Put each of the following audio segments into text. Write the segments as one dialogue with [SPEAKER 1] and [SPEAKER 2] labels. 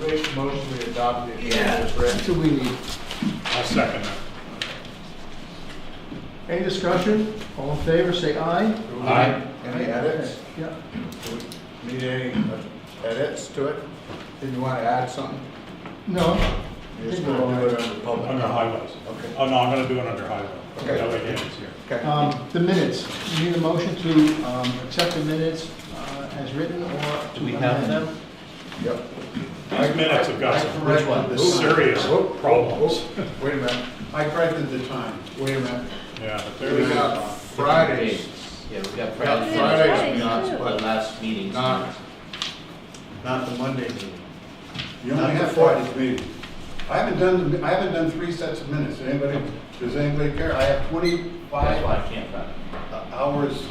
[SPEAKER 1] make a motion we adopt the agenda as
[SPEAKER 2] That's
[SPEAKER 1] written.
[SPEAKER 2] what we need.
[SPEAKER 3] I'll second that.
[SPEAKER 2] Any discussion? All in favor, say aye.
[SPEAKER 1] Do we
[SPEAKER 3] Aye.
[SPEAKER 1] need Any edits?
[SPEAKER 2] Yeah.
[SPEAKER 1] Do we Need any uh, edits to it? Did you want to add something?
[SPEAKER 2] No,
[SPEAKER 1] You're just gonna do it under public.
[SPEAKER 3] Under highways.
[SPEAKER 1] Okay.
[SPEAKER 3] Oh, no, I'm gonna do it under highway.
[SPEAKER 1] Okay.
[SPEAKER 3] That way Dan's here.
[SPEAKER 1] Okay.
[SPEAKER 2] um, the minutes. We need a motion to, um, accept the minutes, uh, as written or to
[SPEAKER 4] Do we have
[SPEAKER 2] amend.
[SPEAKER 4] them?
[SPEAKER 1] Yep.
[SPEAKER 3] These minutes have got some
[SPEAKER 4] Which one?
[SPEAKER 1] Oops.
[SPEAKER 3] serious
[SPEAKER 1] Whoop, whoop,
[SPEAKER 3] problems.
[SPEAKER 1] whoop. Wait a minute,
[SPEAKER 5] I corrected the time.
[SPEAKER 1] wait a minute.
[SPEAKER 3] Yeah, but there
[SPEAKER 1] We
[SPEAKER 3] it is.
[SPEAKER 1] got Fridays,
[SPEAKER 4] Yeah, we got
[SPEAKER 1] Yeah,
[SPEAKER 4] Friday.
[SPEAKER 1] Fridays, we
[SPEAKER 4] Not
[SPEAKER 1] got,
[SPEAKER 4] the
[SPEAKER 1] but
[SPEAKER 4] last meeting.
[SPEAKER 1] Not-
[SPEAKER 5] Not the Monday meeting.
[SPEAKER 6] You only have Friday's meeting. I haven't done, the- I haven't done three sets of minutes. Anybody, does anybody care? I have
[SPEAKER 4] That's why
[SPEAKER 6] twenty-five
[SPEAKER 4] I can't find it.
[SPEAKER 6] hours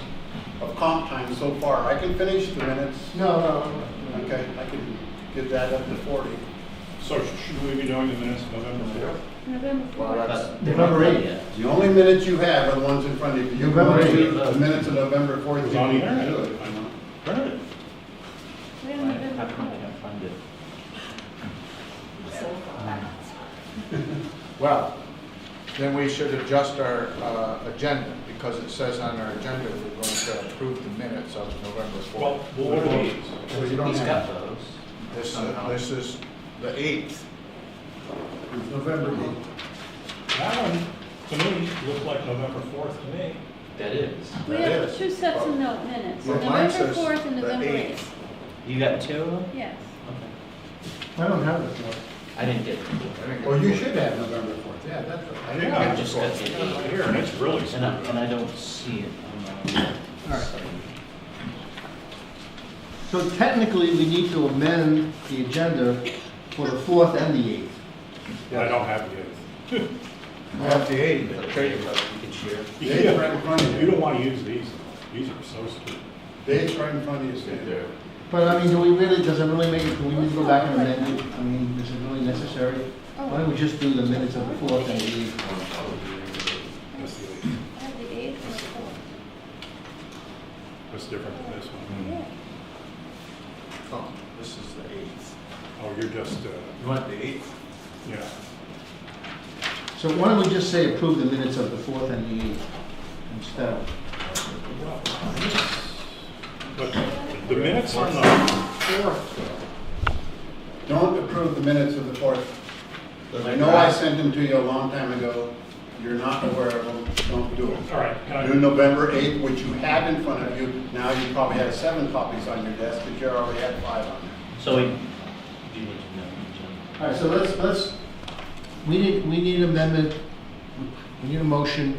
[SPEAKER 6] of comp time so far. I can finish the minutes.
[SPEAKER 2] No, no, no.
[SPEAKER 6] Okay, I can get that up to forty.
[SPEAKER 3] So sh- should we be doing the minutes of November fourth?
[SPEAKER 7] November
[SPEAKER 1] well,
[SPEAKER 7] fourth.
[SPEAKER 1] that's,
[SPEAKER 4] But-
[SPEAKER 2] November eighth.
[SPEAKER 6] The only minutes you have are the ones in front of you. You
[SPEAKER 2] November
[SPEAKER 6] can do
[SPEAKER 4] eighth.
[SPEAKER 6] the minutes of November
[SPEAKER 3] It
[SPEAKER 6] fourth.
[SPEAKER 3] was on the internet. I know. Heard it.
[SPEAKER 7] We have
[SPEAKER 4] How
[SPEAKER 7] November
[SPEAKER 4] come I
[SPEAKER 7] fourth.
[SPEAKER 4] can't find it?
[SPEAKER 1] well, then we should adjust our uh, agenda, because it says on our agenda we're going to approve the minutes of November
[SPEAKER 3] Well,
[SPEAKER 1] 4th.
[SPEAKER 3] well, what are these?
[SPEAKER 1] So you don't
[SPEAKER 4] He's
[SPEAKER 1] have,
[SPEAKER 4] got those.
[SPEAKER 1] this, uh, this is the 8th.
[SPEAKER 6] It's November eighth.
[SPEAKER 3] That one, to me, looked like November fourth to me.
[SPEAKER 4] That is.
[SPEAKER 7] We
[SPEAKER 1] That
[SPEAKER 7] have
[SPEAKER 1] is.
[SPEAKER 7] two sets of note minutes,
[SPEAKER 1] Well, mine
[SPEAKER 7] November
[SPEAKER 1] says
[SPEAKER 7] fourth and
[SPEAKER 1] the
[SPEAKER 7] November
[SPEAKER 1] eighth.
[SPEAKER 7] eighth.
[SPEAKER 4] You got two of them?
[SPEAKER 7] Yes.
[SPEAKER 2] I don't have it, no.
[SPEAKER 4] I didn't get
[SPEAKER 1] I
[SPEAKER 4] them.
[SPEAKER 1] think
[SPEAKER 6] Well, you
[SPEAKER 1] it's-
[SPEAKER 6] should have November fourth. Yeah, that's
[SPEAKER 1] I
[SPEAKER 6] right.
[SPEAKER 1] didn't
[SPEAKER 3] Yeah,
[SPEAKER 4] I
[SPEAKER 1] get the
[SPEAKER 4] just got
[SPEAKER 1] 4th.
[SPEAKER 4] the
[SPEAKER 3] Not
[SPEAKER 4] eight.
[SPEAKER 3] Here, and it's really screwed
[SPEAKER 4] And I, and
[SPEAKER 3] up.
[SPEAKER 4] I don't see it on my.
[SPEAKER 2] All right.
[SPEAKER 4] site.
[SPEAKER 2] So technically, we need to amend the agenda for the fourth and the eighth.
[SPEAKER 3] I don't have the eighth.
[SPEAKER 1] I have the 8th,
[SPEAKER 4] Okay,
[SPEAKER 1] okay.
[SPEAKER 4] well, you can share.
[SPEAKER 6] The eighth right in front of
[SPEAKER 3] You
[SPEAKER 6] you.
[SPEAKER 3] don't wanna use these. These are so stupid.
[SPEAKER 6] The eighth right in front of you, Stan.
[SPEAKER 2] But I mean, do we really, does it really make, do we need to go back and amend it? I mean, is it really necessary? Why don't we just do the minutes of the fourth and the eighth?
[SPEAKER 3] That's the eighth.
[SPEAKER 7] I have the eighth and the fourth.
[SPEAKER 3] That's different than this one.
[SPEAKER 6] Mm.
[SPEAKER 7] Yeah.
[SPEAKER 1] Oh, This is the 8th.
[SPEAKER 3] Oh, you're just, uh,
[SPEAKER 1] You want the 8th?
[SPEAKER 3] yeah.
[SPEAKER 2] So why don't we just say approve the minutes of the fourth and the eighth instead of?
[SPEAKER 3] But the minutes are not,
[SPEAKER 6] Don't approve the minutes of the fourth. I know I sent them to you a long time ago. You're not aware of them. Don't do it.
[SPEAKER 3] all right, can I?
[SPEAKER 6] Do November 8th, which you have in front of you. Now you probably have seven copies on your desk, but you already had five on there.
[SPEAKER 4] So we, do you need to know? Jim?
[SPEAKER 2] All right, so let's, let's, we need, we need amendment, we need a motion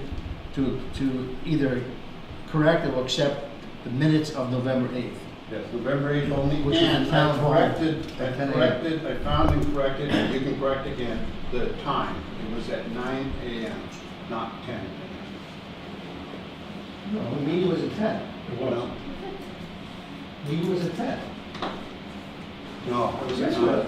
[SPEAKER 2] to, to either correct or accept the minutes of November eighth.
[SPEAKER 6] Yes, November 8th only.
[SPEAKER 2] Which is
[SPEAKER 6] And
[SPEAKER 2] the town
[SPEAKER 6] I
[SPEAKER 2] hall
[SPEAKER 6] corrected,
[SPEAKER 2] at
[SPEAKER 6] I
[SPEAKER 2] 10 a.m.
[SPEAKER 6] corrected, I found and corrected, and you can correct again, the time. It was at 9 a.m., not 10 a.m.
[SPEAKER 2] No, the meeting was at ten.
[SPEAKER 3] It was.
[SPEAKER 2] Meeting was at ten.
[SPEAKER 6] No, it was at
[SPEAKER 2] Yes,
[SPEAKER 6] 9.
[SPEAKER 2] it was.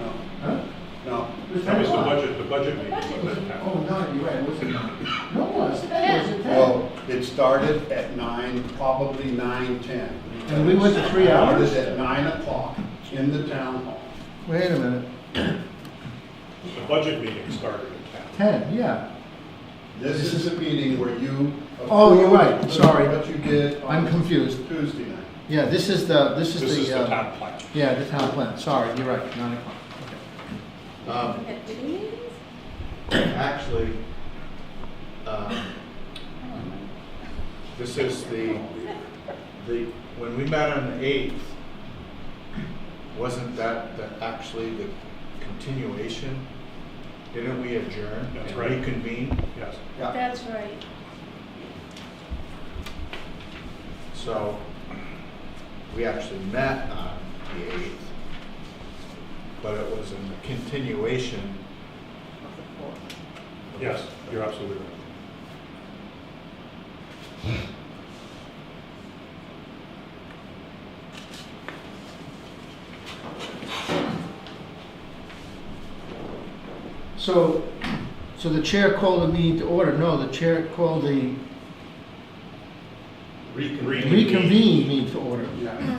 [SPEAKER 6] No,
[SPEAKER 2] Huh?
[SPEAKER 6] no.
[SPEAKER 2] It was
[SPEAKER 3] That was the
[SPEAKER 2] 10.
[SPEAKER 3] budget, the budget meeting. was at that
[SPEAKER 2] Oh,
[SPEAKER 3] time.
[SPEAKER 2] no, you're right, it was at nine. No, it was, it was at ten.
[SPEAKER 6] Well, it started at 9, probably 9:10.
[SPEAKER 2] And we went to three hours?
[SPEAKER 6] It started at 9 o'clock in the town hall.
[SPEAKER 2] Wait a minute,
[SPEAKER 3] The budget meeting started at ten.
[SPEAKER 2] ten, yeah.
[SPEAKER 6] This is a meeting where you.
[SPEAKER 2] Oh, you're right.
[SPEAKER 6] approved
[SPEAKER 2] Sorry.
[SPEAKER 6] What you did. on
[SPEAKER 2] I'm confused.
[SPEAKER 6] Tuesday night.
[SPEAKER 2] Yeah, this is the, this is the.
[SPEAKER 3] This is the
[SPEAKER 2] uh,
[SPEAKER 3] town plan.
[SPEAKER 2] Yeah, the town plan, sorry, you're right, nine o'clock. Okay.
[SPEAKER 7] We
[SPEAKER 5] Um,
[SPEAKER 7] had two meetings?
[SPEAKER 5] Actually, um,
[SPEAKER 1] This is the, the, when we met on the eighth, wasn't that the, actually the continuation? Didn't we adjourn
[SPEAKER 3] That's
[SPEAKER 1] and
[SPEAKER 3] right.
[SPEAKER 1] reconvene?
[SPEAKER 3] Yes.
[SPEAKER 7] That's right.
[SPEAKER 1] So, we actually met on the eighth, but it was in the continuation.
[SPEAKER 3] Yes, you're absolutely right.
[SPEAKER 2] So, so the chair called the meeting to order, no, the chair called the
[SPEAKER 3] Reconvene.
[SPEAKER 2] reconvene meeting to order.
[SPEAKER 6] Yeah.